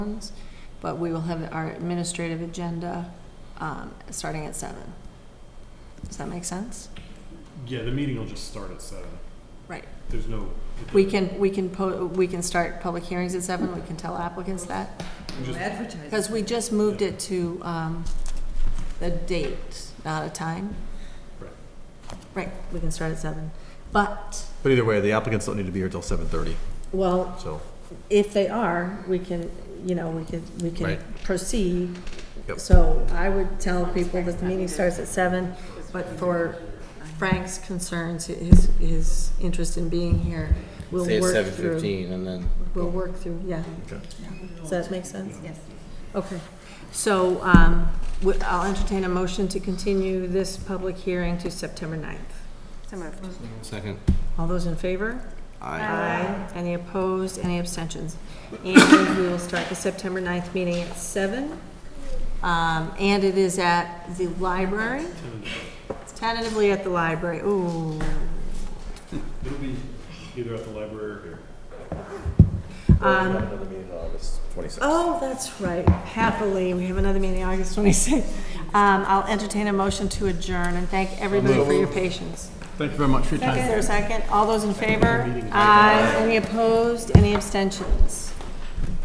ones, but we will have our administrative agenda um, starting at seven. Does that make sense? Yeah, the meeting will just start at seven. Right. There's no. We can, we can, po- we can start public hearings at seven, we can tell applicants that, we just- because we just moved it to um, the date, not a time. Right. Right, we can start at seven, but, But either way, the applicants don't need to be here till seven thirty, well, so. if they are, we can, you know, we could, we can Right. proceed. Yep. So I would tell people that the meeting starts at seven, but for Frank's concerns, his, his interest in being here, we'll Say it's work seven through. fifteen and then. We'll work through, yeah. Okay. Does that make sense? Yes. Okay. So, um, we- I'll entertain a motion to continue this public hearing to September 9th. So moved. Second. All those in favor? Aye. Aye. Any opposed, any abstentions? And we will start the September 9th meeting at seven. Um, and it is at the library, It's tentatively at the library, ooh. It'll be either at the library or here. Um, Another meeting in August twenty-sixth. oh, that's right, happily, we have another meeting August 26th. Um, I'll entertain a motion to adjourn and thank everybody for your patience. Thank you very much for your time. Is there a second? All those in favor? Aye. Any opposed, any abstentions?